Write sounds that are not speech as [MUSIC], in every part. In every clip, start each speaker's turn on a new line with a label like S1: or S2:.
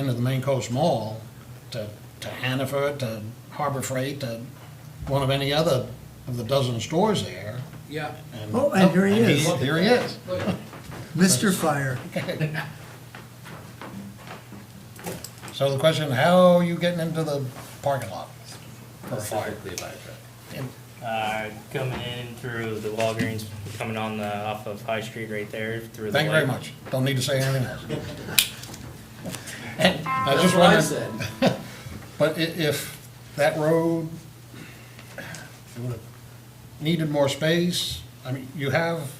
S1: into the Main Coast Mall to, to Hannaford, to Harbor Freight, to one of any other of the dozen stores there.
S2: Yeah.
S3: Oh, and here he is.
S1: Here he is.
S3: Mr. Fire.
S1: So the question, how are you getting into the parking lot for a fire?
S2: Specifically by truck.
S1: And
S4: Uh, coming in through the Walgreens, coming on the, off of High Street right there through the.
S1: Thank you very
S4: light.
S1: much. Don't need to say anything else.
S2: [LAUGHS]
S1: And I
S2: That's
S1: just
S2: what I
S1: wanted,
S2: said.
S1: But i- if that road would have needed more space, I mean, you have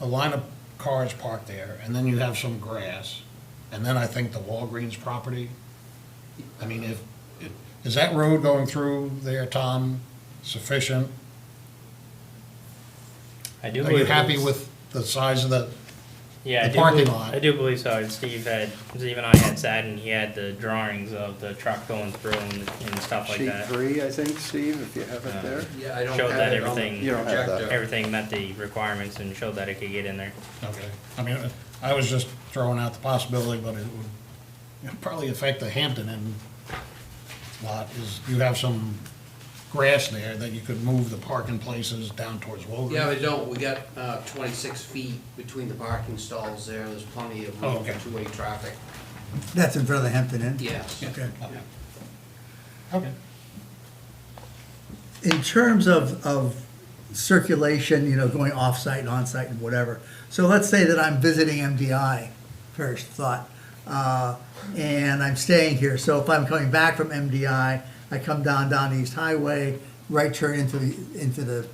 S1: a line of cars parked there, and then you have some grass, and then I think the Walgreens property. I mean, if, if- is that road going through there, Tom, sufficient?
S4: I do
S1: Are
S4: believe.
S1: you happy
S4: it's-
S1: with the size of the,
S4: Yeah, I
S1: the
S4: do
S1: parking
S4: believe-
S1: lot?
S4: I do believe so. And Steve had, Steve and I had sat and he had the drawings of the truck going through and, and stuff like
S5: Sheet
S4: that.
S5: three, I think, Steve, if you have it there.
S3: Uh,
S2: Yeah, I don't
S4: Showed
S2: have
S4: that
S2: it on the
S4: everything-
S5: You don't have that.
S2: projector.
S4: Everything met the requirements and showed that it could get in there.
S1: okay, I mean, I was just throwing out the possibility, but it would probably affect the Hampton Inn lot, is you have some grass there that you could move the parking places down towards Woburn.
S2: Yeah, we don't, we got uh, 26 feet between the parking stalls there, there's plenty of
S1: Oh,
S2: room
S1: okay.
S2: for two-way traffic.
S3: That's in front of the Hampton Inn?
S2: Yes.
S3: Okay.
S1: Okay.
S3: In terms of, of circulation, you know, going off-site and on-site and whatever, so let's say that I'm visiting MDI, first thought, uh, and I'm staying here, so if I'm coming back from MDI, I come down, down East Highway, right turn into the, into the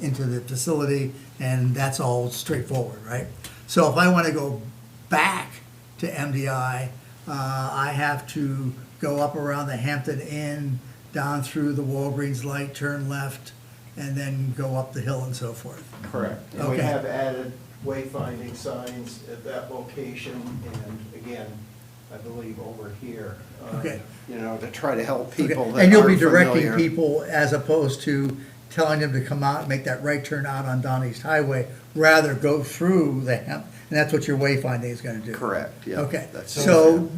S3: into the facility, and that's all straightforward, right? So if I want to go back to MDI, uh, I have to go up around the Hampton Inn, down through the Walgreens light, turn left, and then go up the hill and so forth.
S6: Correct. And we
S3: Okay.
S6: have added wayfinding signs at that location and again, I believe over here. uh,
S3: Okay.
S6: You know, to try to help
S3: Okay,
S6: people that
S3: And you'll be
S6: aren't
S3: directing
S6: familiar.
S3: people as opposed to telling them to come out, and make that right turn out on Don East Highway, rather go through the Hamp, and that's what your wayfinding is gonna do.
S6: Correct, yeah.
S3: Okay,
S6: That's-
S3: so,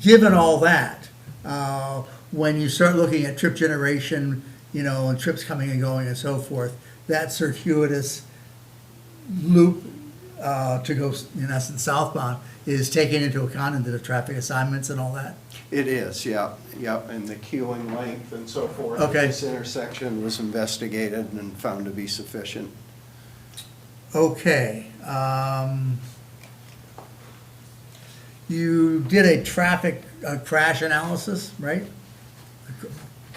S3: given all that, uh, when you start looking at trip generation, you know, and trips coming and going and so forth, that circuitous loop uh, to go, in essence, southbound, is taken into account into the traffic assignments and all that?
S6: It is, yeah, yeah, and the queuing length and so forth.
S3: Okay.
S6: This intersection was investigated and found to be sufficient.
S3: Okay, um, you did a traffic uh, crash analysis, right?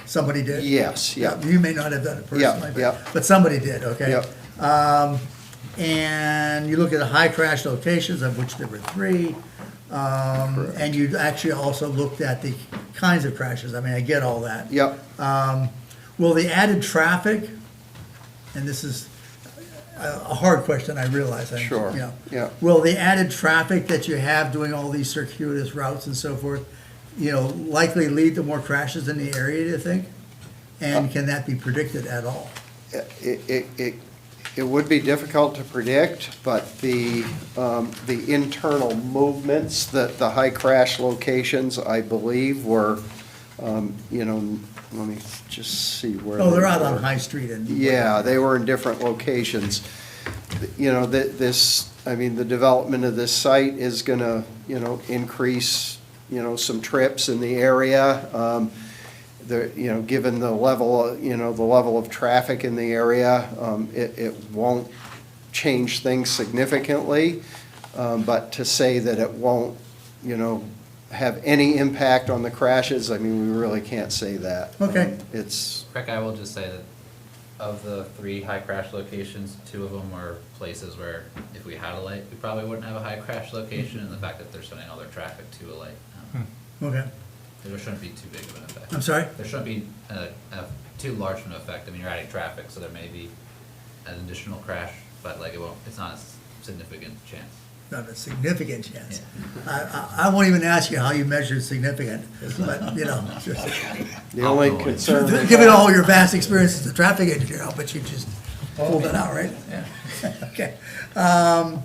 S3: Somebody did?
S6: Yes, yeah.
S3: You may not have done it
S6: Yeah,
S3: personally,
S6: yeah.
S3: but, but somebody did, okay?
S6: Yep.
S3: Um, and you look at the high crash locations, of which there were three. Um, and you actually also looked at the kinds of crashes. I mean, I get all that.
S6: Yep,
S3: Will the added traffic, and this is a a hard question, I realize. I-
S6: Sure,
S3: you know.
S6: yeah.
S3: Will the added traffic that you have doing all these circuitous routes and so forth, you know, likely lead to more crashes in the area, do you think? And
S6: Uh.
S3: can that be predicted at all?
S6: it, it, it, it would be difficult to predict, but the, um, the internal movements, that the high crash locations, I believe, were, um, you know, let me just see where.
S3: Oh, they're
S6: they
S3: out on
S6: were.
S3: High Street and.
S6: Yeah, they were in different locations. You know, that this, I mean, the development of this site is gonna, you know, increase, you know, some trips in the area. Um, The, you know, given the level, you know, the level of traffic in the area, um, it, it won't change things significantly. Um, But to say that it won't, you know, have any impact on the crashes, I mean, we really can't say that.
S3: Okay.
S6: Um, It's,
S7: Rick, I will just say that of the three high crash locations, two of them were places where if we had a light, we probably wouldn't have a high crash location, and the fact that they're sending all their traffic to a light, um,
S3: Okay,
S7: there shouldn't be too big of an effect.
S3: Hmm. I'm sorry?
S7: There shouldn't be a, a too large of an effect, I mean, you're adding traffic, so there may be an additional crash, but like it won't, it's not a s- significant chance.
S3: Not a significant chance. I, I, I won't even ask you how you measured significant, but, you know, just.
S6: [LAUGHS] the only
S7: Outgoing.
S6: concern. we
S3: Given
S6: have-
S3: all your vast experience as a traffic engineer, I'll bet you just pulled it out, right? [LAUGHS] Okay. Um,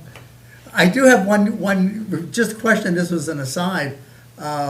S3: I do have one, one, just question, this was an aside. Uh,